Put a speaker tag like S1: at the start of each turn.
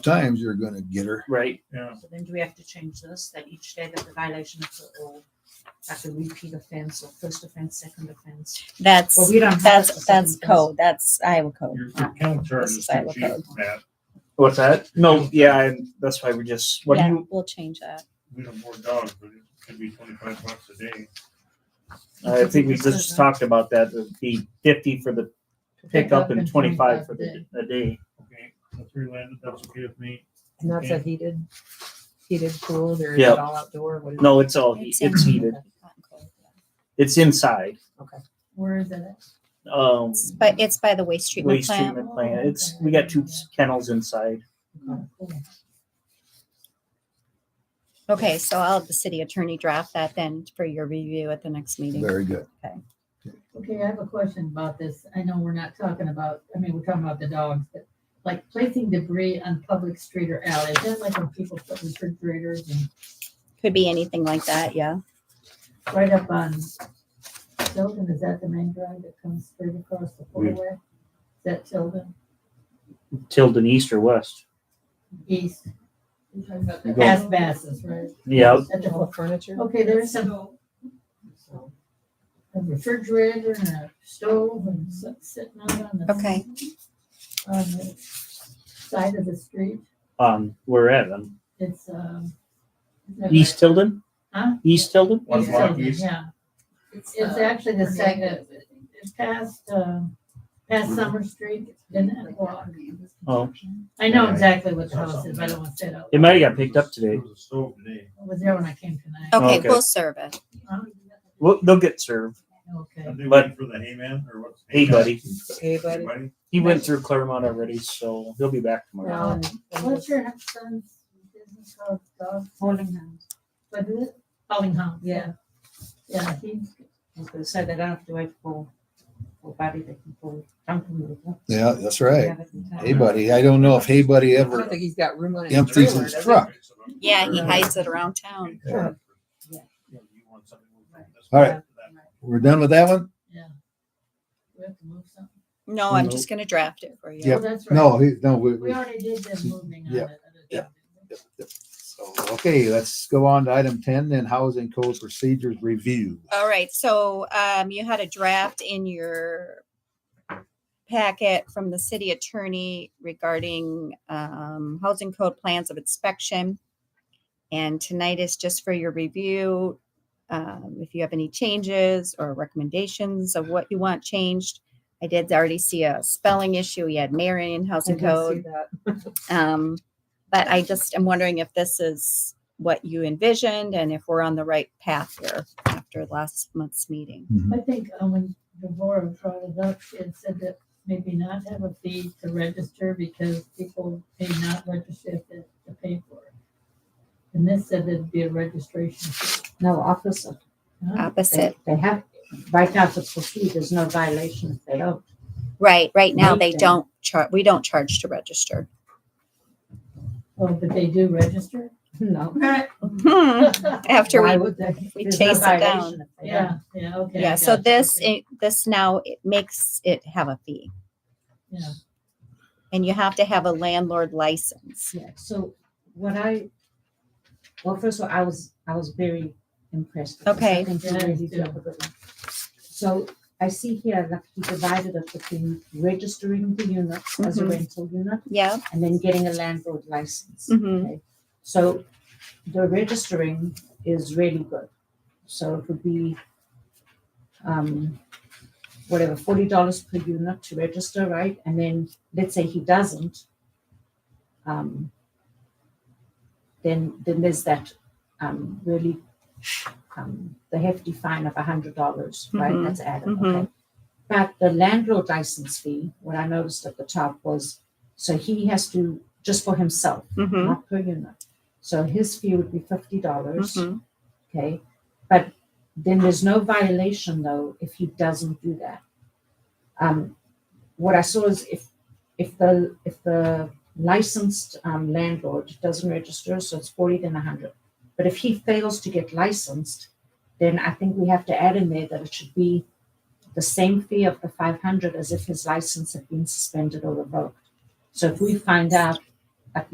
S1: times you're going to get her.
S2: Right.
S3: Yeah,
S4: So then do we have to change this, that each day that the violation is or like a repeat offense or first offense, second offense?
S5: That's,
S4: Well, we don't have a
S5: that's,
S4: specific
S5: that's
S4: offense.
S5: code. That's Iowa code.
S3: your your counter charge
S5: This
S3: is
S5: is
S3: too
S5: Iowa
S3: cheap,
S5: code.
S3: Matt.
S2: What's that? No, yeah, and that's why we just, what do
S5: Yeah,
S2: you,
S5: we'll change that.
S3: We have more dogs, but it could be twenty-five bucks a day.
S2: I think we just talked about that, it'd be fifty for the pickup and twenty-five for the, a day.
S3: Okay, the three landed, that's okay with me.
S6: And that's a heated, heated pool, or is
S2: Yeah.
S6: it all outdoor? What is it?
S2: No, it's all, he-
S5: It's in-
S2: it's heated, it's inside,
S4: Where is it?
S2: um,
S5: It's by, it's by the waste treatment
S2: waste
S5: plant.
S2: treatment plant, it's, we got two kennels inside.
S7: Oh,
S5: Okay, so I'll have the city attorney draft that then for your review at the next meeting.
S1: Very good.
S7: Okay, I have a question about this. I know we're not talking about, I mean, we're talking about the dogs, but like placing debris on public street or alley, is that like when people put refrigerators and
S5: Could be anything like that, yeah.
S7: right up on Tilden, is that the main drive that comes straight across the four-way? Is that Tilden
S2: Tilden east or west?
S7: East,
S2: You go-
S7: past Basses, right?
S2: Yeah,
S7: At
S6: All
S7: the-
S6: the furniture?
S7: Okay, there's some a refrigerator and a stove and si- sitting out on the.
S5: Okay.
S7: On the side of the street.
S2: um, we're at them,
S7: It's, um. is that
S2: East Tilden,
S7: right? Huh?
S2: East Tilden,
S3: One
S7: East
S3: block
S7: Tilden,
S3: east.
S7: Yeah, it's actually the second, it's past, um, past Summer Street, didn't it? Well,
S2: oh,
S7: I know exactly what the house is, but I don't want to say it out.
S2: it might have got picked up today.
S3: It was a stove today.
S7: loud. I was there when I came tonight.
S5: Okay,
S2: Okay.
S5: we'll serve it.
S7: Huh?
S2: Well, they'll get served,
S7: Okay,
S3: Are they
S2: But-
S3: waiting for the hayman or what's?
S2: hey buddy,
S6: Hey, buddy.
S3: Anybody?
S2: he went through Claremont already, so he'll be back tomorrow.
S7: Well, what's your son's business called, dog?
S4: Holding hands.
S7: What is it? Bellingham. Yeah. Yeah, he,
S4: I was gonna say, they don't have to wait for, for Buddy, they can call dump removal.
S1: Yeah, that's
S4: We
S1: right.
S4: have it in town.
S1: Hey, buddy. I don't know if Hey Buddy
S6: I don't
S1: ever.
S6: think he's got room on his
S1: Empties
S6: trailer,
S1: his
S6: does he?
S1: truck.
S5: Yeah, he hides it around town.
S1: Yeah.
S3: You want something to move from this
S1: All
S3: one
S1: right.
S3: to that one.
S1: We're done with that one?
S7: yeah. We have to move something.
S5: No, I'm just gonna draft it for you.
S1: Yep.
S7: Oh, that's right.
S1: No, he, no. We,
S7: We
S1: we,
S7: already did the moving on
S1: Yeah,
S7: it.
S1: yeah. so, okay, let's go on to item 10 then housing code procedures review.
S5: All right, so um, you had a draft in your packet from the city attorney regarding um, housing code plans of inspection. And tonight is just for your review. Um, if you have any changes or recommendations of what you want changed. I did already see a spelling issue. You had Marion
S6: I
S5: Housing
S6: can
S5: Code.
S6: see that.
S5: Um, but I just am wondering if this is what you envisioned and if we're on the right path here after last month's meeting.
S7: I think uh, when Devorah brought it up, she had said that maybe not have a fee to register because people may not register if they to pay for it. And this said there'd be a registration. fee.
S4: No, opposite. Mm-hmm.
S7: Huh?
S5: Opposite,
S4: They have, right now, if it's for free, there's no violation if they don't.
S5: right, right now they
S4: Right then.
S5: don't charge, we don't charge to register.
S7: Oh, but they do register?
S4: No.
S5: Hmm, After
S4: Why
S5: we,
S4: would they?
S5: we
S4: There's no
S5: chase it
S4: violation
S5: down.
S4: if they don't.
S7: Yeah, yeah, okay. I
S5: Yeah, so
S7: gotcha,
S5: this,
S7: okay.
S5: it- this now it makes it have a fee.
S7: Yeah.
S5: And you have to have a landlord license.
S4: Yeah, so what I, well, first of all, I was, I was very impressed. with this.
S5: Okay.
S4: I think you really did a good one. So I see here that he divided it between registering the units as a
S5: Mhm.
S4: rental unit
S5: Yeah,
S4: and then getting a landlord license.
S5: mhm,
S4: So the registering is really good. So it would be um whatever, forty dollars per unit to register, right? And then let's say he doesn't. Um then then there's that um really um the hefty fine of a hundred dollars, right?
S5: Mhm.
S4: That's added,
S5: Mhm.
S4: okay. But the landlord license fee, what I noticed at the top was, so he has to, just for himself,
S5: mhm,
S4: not per unit. So his fee would be fifty dollars,
S5: mhm.
S4: okay? But then there's no violation though if he doesn't do that. Um, what I saw is if, if the, if the licensed um, landlord doesn't register, so it's forty then hundred. But if he fails to get licensed, then I think we have to add in there that it should be the same fee of the five hundred as if his license had been suspended or revoked. So if we find out